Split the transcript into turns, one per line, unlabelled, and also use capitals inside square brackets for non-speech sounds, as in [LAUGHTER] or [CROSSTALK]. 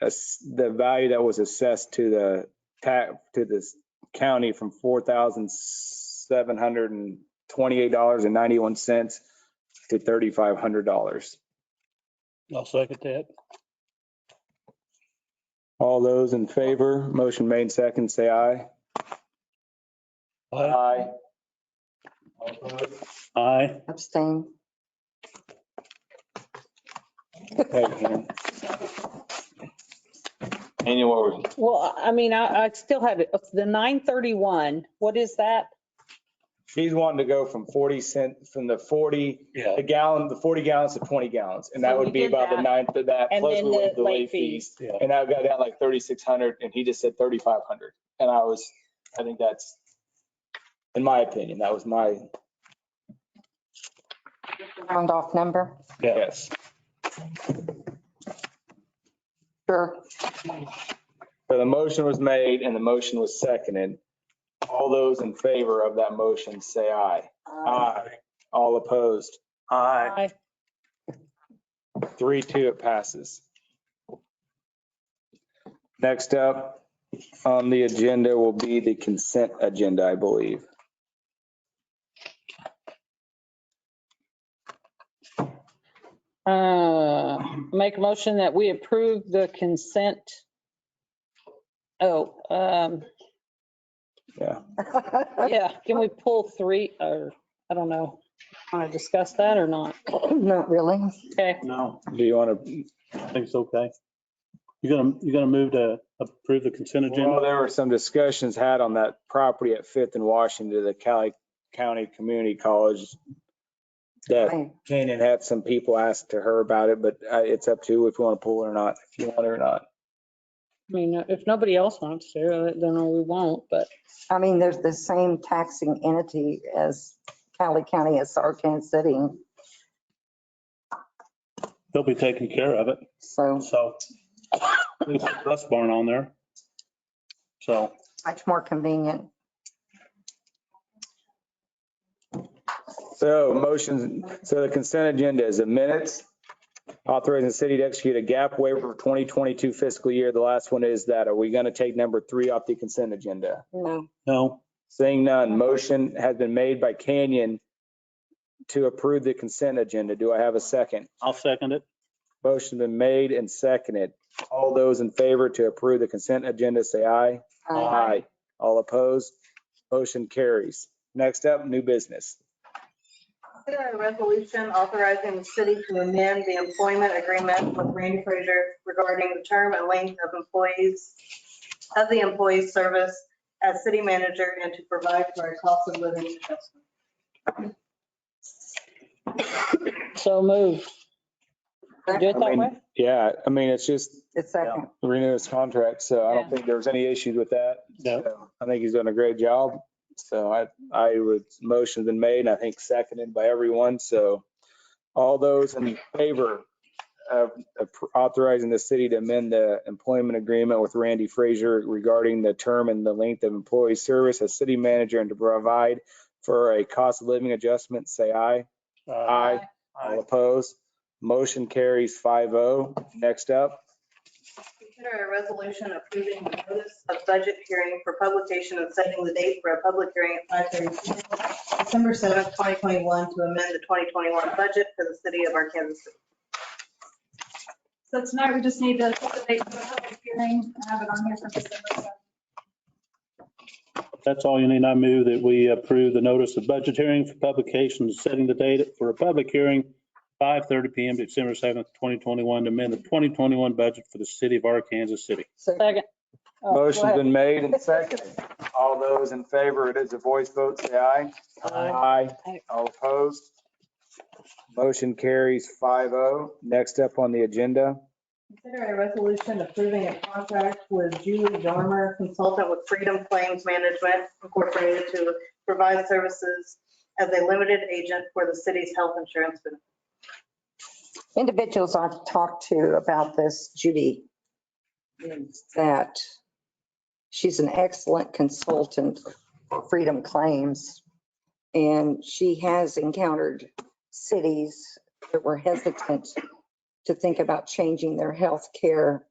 ass- the value that was assessed to the tax, to this county from four thousand seven hundred and twenty-eight dollars and ninety-one cents to thirty-five hundred dollars.
I'll second that.
All those in favor, motion made second, say aye.
Aye.
Aye.
Aye.
abstain.
Annual, what was it?
Well, I mean, I, I still have it. The nine thirty-one, what is that?
She's wanting to go from forty cent, from the forty,
Yeah,
the gallon, the forty gallons to twenty gallons, and that
So we
would be
did
about the
that.
ninth of that.
And
plus
then
we went
the
to
late fees.
yeah.
And I got down like thirty-six hundred and he just said thirty-five hundred. And I was, I think that's, in my opinion, that was my
Round off number,
Yeah.
guess.
sure. [LAUGHS]
So the motion was made and the motion was seconded. All those in favor of that motion, say aye. Aye. All opposed?
Aye.
Aye.
Three, two, it passes. Next up on the agenda will be the consent agenda, I believe.
Uh, make a motion that we approve the consent. Oh, um, yeah, can we pull three or, I don't know. Want to discuss that or not?
Not really.
Okay,
No,
Do you want to?
I think it's okay. You're gonna, you're gonna move to approve the consent
Well,
agenda?
there were some discussions had on that property at Fifth and Washington, the Cali County Community College. That
Aye.
Canaan had some people ask to her about it, but uh, it's up to you if you want to pull it or not, if you want it or not.
I mean, if nobody else wants to, then we won't, but
I mean, there's the same taxing entity as Cali County, as Sarkansas City,
They'll be taking care of it,
so
so. There's a Dust barn on there. So,
much more convenient.
So motions, so the consent agenda is a minutes. Authorizing the city to execute a gap waiver for 2022 fiscal year. The last one is that, are we going to take number three off the consent agenda?
No,
no,
Seeing none, motion has been made by Canyon to approve the consent agenda. Do I have a second?
I'll second it.
Motion been made and seconded. All those in favor to approve the consent agenda, say aye.
Aye.
All opposed? Motion carries. Next up, new business.
Consider a resolution authorizing the city to amend the employment agreement with Randy Frazier regarding the term and length of employees, of the employee service as city manager and to provide for a cost of living adjustment.
so move. Do it
I
that
mean,
way?
Yeah, I mean, it's just
It's second.
renew his contract, so I don't
Yeah.
think there's any issues with that.
No.
So I think he's done a great job. So I, I would, motion's been made and I think seconded by everyone. So all those in favor of of authorizing the city to amend the employment agreement with Randy Frazier regarding the term and the length of employee service as city manager and to provide for a cost of living adjustment, say aye.
Uh,
Aye. All opposed? Motion carries 5-0. Next up.
Consider a resolution approving the notice of budget hearing for publication and setting the date for a public hearing at 5:30 p.m., December 7th, 2021, to amend the 2021 budget for the city of Arkansas City.
So tonight, we just need to set the date for the public hearing and have it on here for December 7th.
That's all you need. I move that we approve the notice of budget hearing for publication, setting the date for a public hearing, 5:30 PM, December 7th, 2021, to amend the 2021 budget for the city of Arkansas City.
Second.
Second. Oh, go
Motion's
ahead.
been made
[LAUGHS]
and seconded. All those in favor, it is a voice vote, say aye. Aye.
Aye.
All opposed? Motion carries 5-0. Next up on the agenda,
Consider a resolution approving a contract with Julie Dormer, consultant with Freedom Claims Management Incorporated, to provide services as a limited agent for the city's health insurance benefits.
individuals I've talked to about this, Judy, is that she's an excellent consultant for Freedom Claims. And she has encountered cities that were hesitant to think about changing their health care